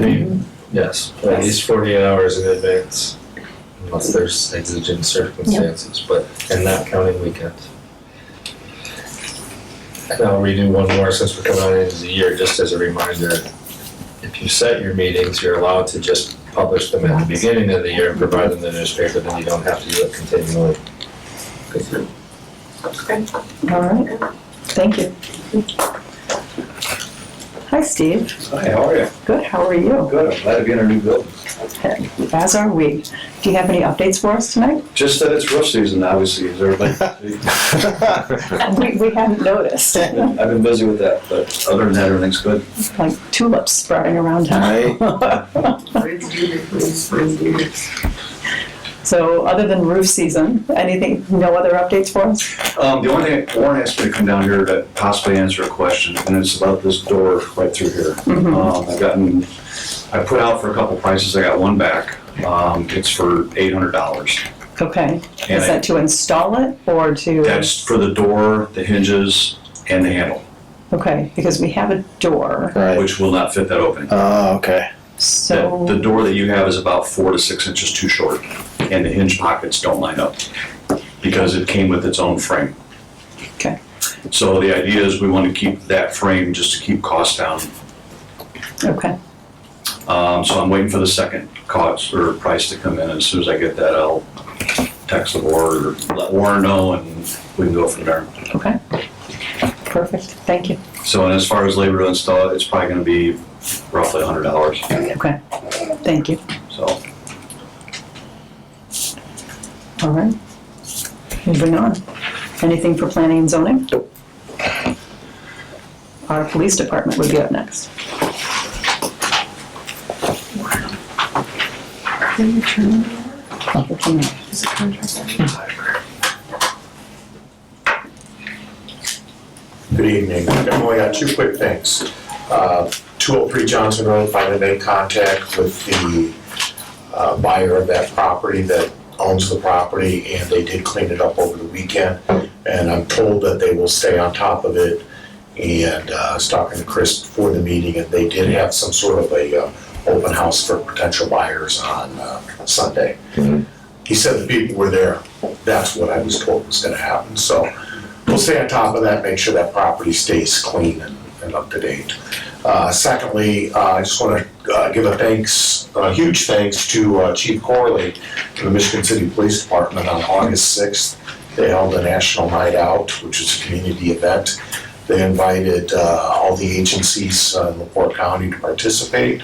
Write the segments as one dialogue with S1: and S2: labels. S1: mean, Yes, at least forty hours in advance, unless there's exigent circumstances, but, and not counting weekends. And I'll redo one more since we're coming on into the year, just as a reminder. If you set your meetings, you're allowed to just publish them at the beginning of the year and provide them to the newspaper, then you don't have to do it continually.
S2: All right, thank you. Hi, Steve.
S3: Hi, how are you?
S2: Good, how are you?
S3: Good, I'm glad to be in our new building.
S2: As are we. Do you have any updates for us tonight?
S3: Just that it's rough season, obviously, is everybody.
S2: We, we haven't noticed,
S3: I've been busy with that, but other than that, everything's good.
S2: like tulips sprouting around town. So other than roof season, anything, no other updates for us?
S3: Um, the only thing, Warren asked me to come down here to possibly answer a question, and it's about this door right through here.
S2: Hmm. Mm-hmm.
S3: Um, I've gotten, I put out for a couple prices, I got one back. Um, it's for eight hundred dollars.
S2: Okay,
S3: And
S2: is
S3: I-
S2: that to install it or to?
S3: That's for the door, the hinges, and the handle,
S2: Okay, because we have a door,
S4: Right.
S3: which will not fit that opening.
S4: Oh, okay.
S3: The, the
S2: so,
S3: door that you have is about four to six inches too short, and the hinge pockets don't line up because it came with its own frame.
S2: Okay.
S3: So the idea is we want to keep that frame just to keep costs down.
S2: okay,
S3: Um, so I'm waiting for the second cost or price to come in. As soon as I get that, I'll text the board or let Warren know and we can go from there.
S2: okay. Perfect, thank you.
S3: So, and as far as labor to install it, it's probably going to be roughly hundred dollars,
S2: Okay, thank you.
S3: so.
S2: All right. Moving on. Anything for planning and zoning? Our police department would be up next. Public hearing.
S5: Good evening. I've only got two quick things. Uh, 203 Johnson Road, finally made contact with the uh, buyer of that property that owns the property, and they did clean it up over the weekend. And I'm told that they will stay on top of it. And uh, I was talking to Chris before the meeting, and they did have some sort of a uh, open house for potential buyers on uh, Sunday. He said the people were there. That's what I was told was going to happen. So we'll stay on top of that, make sure that property stays clean and, and up to date. Uh, secondly, uh, I just want to uh, give a thanks, a huge thanks to uh, Chief Corley and the Michigan City Police Department on August 6th. They held a national night out, which was a community event. They invited uh, all the agencies uh, in LaPorte County to participate,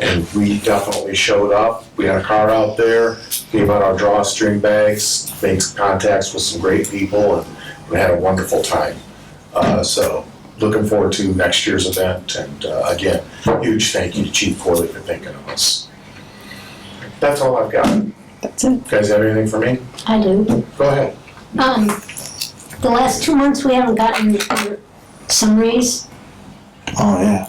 S5: and we definitely showed up. We had a car out there, gave out our drawstring bags, made contacts with some great people, and we had a wonderful time. Uh, so looking forward to next year's event, and uh, again, huge thank you to Chief Corley for thinking of us. That's all I've got. You
S2: That's it.
S5: guys have anything for me?
S6: I do.
S5: Go ahead.
S6: Um, the last two months, we haven't gotten your summaries.
S4: Oh, yeah.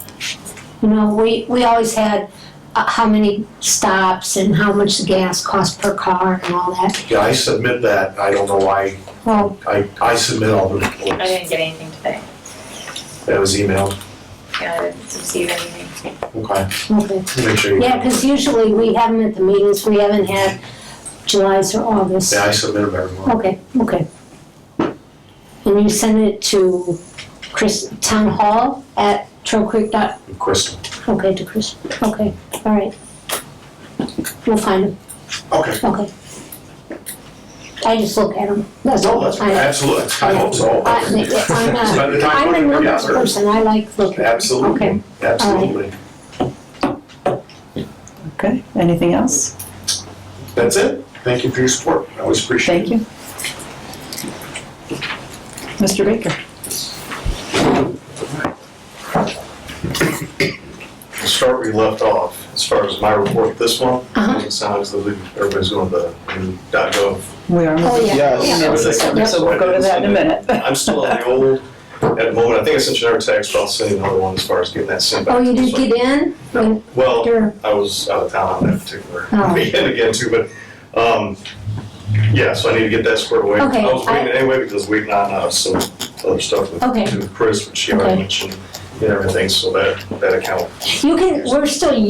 S6: You know, we, we always had uh, how many stops and how much the gas cost per car and all that.
S5: Yeah, I submit that. I don't know why.
S6: Well,
S5: I, I submit all the reports
S7: I didn't get anything today.
S5: that was emailed.
S7: Yeah, I didn't receive anything.
S5: Okay,
S6: okay.
S5: make sure you.
S6: Yeah, because usually we have them at the meetings. We haven't had July's or August.
S5: Yeah, I submit them every month.
S6: Okay, okay. And you send it to Chris, Town Hall at Creek dot,
S5: Crystal.
S6: okay, to Chris, okay, all right. We'll find them.
S5: Okay.
S6: Okay. I just look at them, that's
S5: No,
S6: all. Uh,
S5: that's,
S6: I-
S5: absolutely. I hope so.
S6: I- I'm
S5: By the
S6: a,
S5: time
S6: I'm a
S5: we're
S6: numbers
S5: together.
S6: person, I like looking. Okay,
S5: Absolutely, absolutely.
S2: Okay, anything else?
S5: That's it. Thank you for your support. I always appreciate it.
S2: Thank you. Mr. Baker?
S5: We'll start where you left off, as far as my report this month,
S6: Uh-huh.
S5: it sounds that we- everybody's going to the dot gov.
S2: We are
S6: oh,
S2: moving.
S6: yeah.
S4: Yes.
S6: yeah.
S2: So we'll go to that in a minute.
S5: I'm still on the old, at the moment, I think I sent you another text, but I'll send you another one as far as getting that sent back.
S6: Oh, you
S5: to us.
S6: did get in? When-
S5: Well,
S6: Sure.
S5: I was out of town on that particular
S6: Oh.
S5: weekend again too, but, um, yeah, so I need to get that squared away.
S6: Okay,
S5: I was
S6: I-
S5: waiting anyway because waiting on, uh, some other stuff with
S6: Okay.
S5: with Chris, which she already
S6: Okay.
S5: mentioned, and everything, so that, that account
S6: You can, we're still